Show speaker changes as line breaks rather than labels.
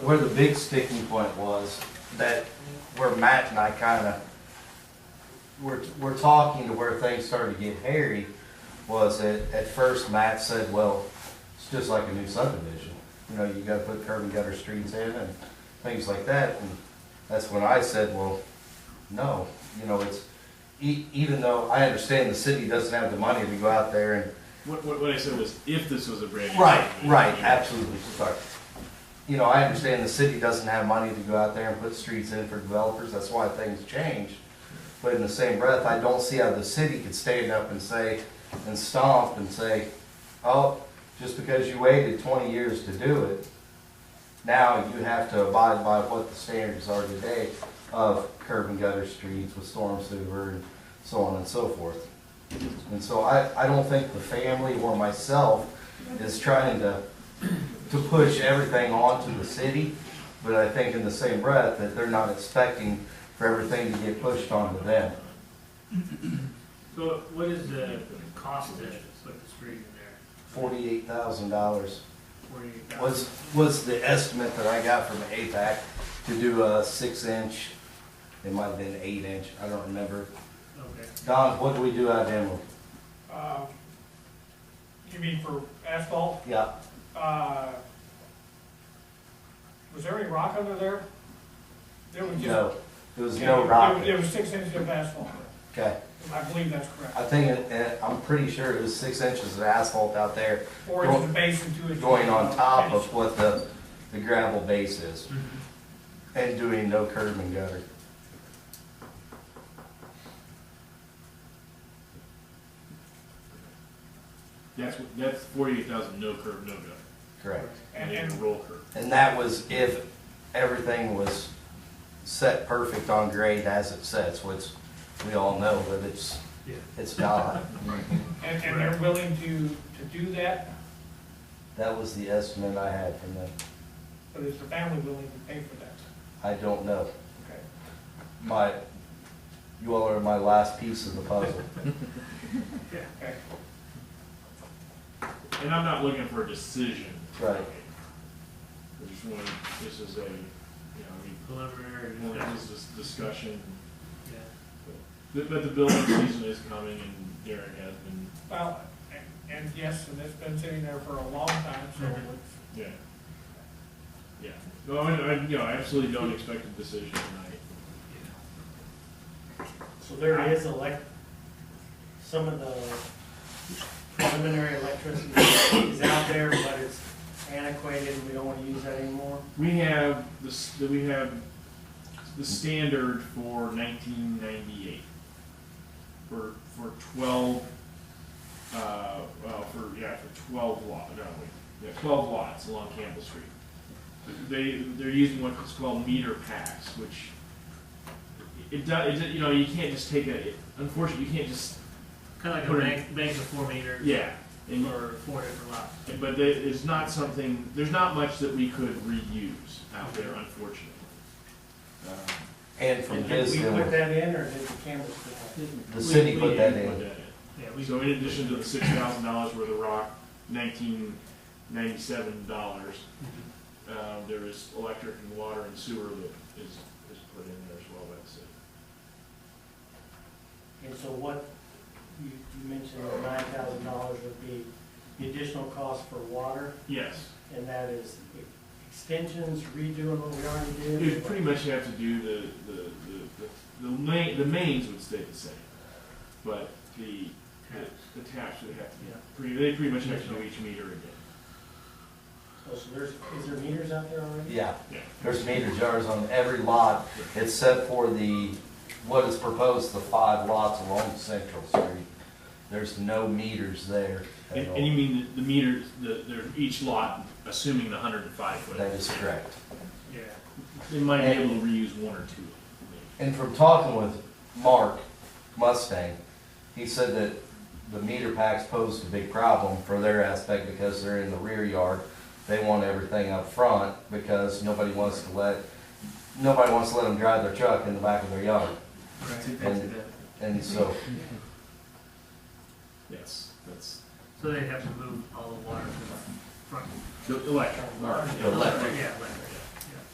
Where the big sticking point was, that where Matt and I kinda, were were talking to where things started to get hairy, was that at first Matt said, well, it's just like a new subdivision. You know, you gotta put curb and gutter streets in and things like that, and that's when I said, well, no, you know, it's, e- even though I understand the city doesn't have the money to go out there and
What, what, what I said was, if this was a brand new.
Right,
subdivision,
right,
you-
absolutely, sorry. You know, I understand the city doesn't have money to go out there and put streets in for developers, that's why things change. But in the same breath, I don't see how the city could stand up and say, and stomp and say, oh, just because you waited twenty years to do it, now you have to abide by what the standards are today of curb and gutter streets with storm sewer and so on and so forth. And so I, I don't think the family or myself is trying to, to push everything onto the city, but I think in the same breath that they're not expecting for everything to get pushed onto them.
So what is the cost to put the street in there?
Forty-eight thousand dollars
Forty-eight
was,
thousand?
was the estimate that I got from APAC to do a six-inch, it might have been eight-inch, I don't remember.
Okay.
Don, what do we do out of Emerald?
Uh, You mean for asphalt?
Yeah,
Uh, Was there any rock under there? There was just.
no, there was
Yeah,
no
there-
rock,
There was six inches of asphalt.
okay.
I believe that's
I
correct.
think, it- eh, I'm pretty sure it was six inches of asphalt out there,
Four inches of base and two inches.
going on top of what the, the gravel base is and doing no curb and gutter.
That's, what- that's forty-eight thousand, no curb, no gutter,
Correct.
And,
and then
and,
roll curb.
And that was if everything was set perfect on grade as it sets, which we all know, but it's,
Yeah.
it's not.
and and they're willing to, to do that,
That was the estimate I had from them.
but is the family willing to pay for that?
I don't know.
Okay.
My, you all are my last piece of the puzzle.
Okay.
And I'm not looking for a decision.
Right.
I just want, this is a, you know,
Preliminary,
we want
yeah.
this is discussion, but, but the building season is coming and Darren has been,
Well, and, and yes, and it's been sitting there for a long time, so
Mhm.
it's-
yeah. Yeah, no, I, I, you know, I absolutely don't expect a decision tonight.
So there is elect, some of the preliminary electricity is out there, but it's antiquated, we don't wanna use that anymore.
We have this, we have the standard for nineteen ninety-eight. For, for twelve, uh, well, for, yeah, for twelve lot, no, wait, yeah, twelve lots along Campbell Street. They, they're using what's called meter packs, which it does, it, you know, you can't just take a, unfortunately, you can't just,
Kind of
Put
like a
it-
bank, bank of four meters.
yeah. And
Or four different lots.
But there- it's not something, there's not much that we could reuse out there, unfortunately. Um,
And from
Did
his,
we put
end,
that in, or did the cameras put that?
the
Um,
city put that in.
Yeah, we,
So in addition to the six thousand dollars worth of rock, nineteen ninety-seven dollars, um, there is electric and water and sewer that is, is put in there as well, that's it.
in? And so what, you, you mentioned that nine thousand dollars would be the additional cost for water,
Yes,
and that is extensions, redoing what we already did?
you'd pretty much have to do the, the, the, the, the main, the mains would stay the same, but the, the- the taps would have to be,
Yeah.
pretty, they pretty much have to do each meter again.
Oh, So there's, is there meters out there already?
Yeah,
Yeah.
there's meter jars on every lot, except for the, what is proposed, the five lots along Central Street. There's no meters there at
And, and you
all.
mean the the meters, the, they're each lot, assuming the hundred and five foot.
That is correct.
yeah.
They might be able to reuse one or two. of
And from talking with Mark Mustang, he said that the meter packs posed a big problem for their aspect because they're in the rear yard. They want everything up front because nobody wants to let, nobody wants to let them drive their truck in the back of their yard.
Right.
And- And so,
them. Yes, that's
So they have to move all the water to the front.
the electric.
Mark.
The electric.
Yeah, electric.